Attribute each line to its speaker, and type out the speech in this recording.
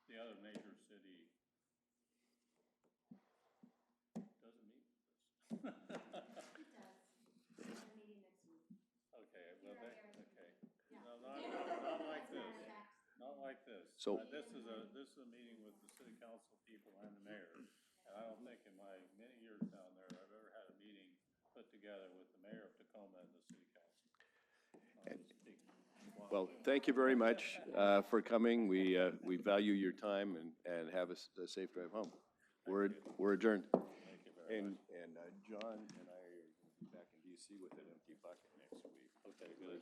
Speaker 1: this.
Speaker 2: So-
Speaker 1: Uh, This is a, this is a meeting with the city council people and the mayor. And I don't think in my many years down there, I've ever had a meeting put together with the mayor of Tacoma and the city council. I'll just speak one.
Speaker 2: Well, thank you very much uh, for coming. We, uh, we value your time and, and have a s- a safe drive home. We're, we're adjourned.
Speaker 1: Thank you very much.
Speaker 2: And, and uh, John and I are going to be back in DC with an empty bucket next week.
Speaker 1: Okay, good.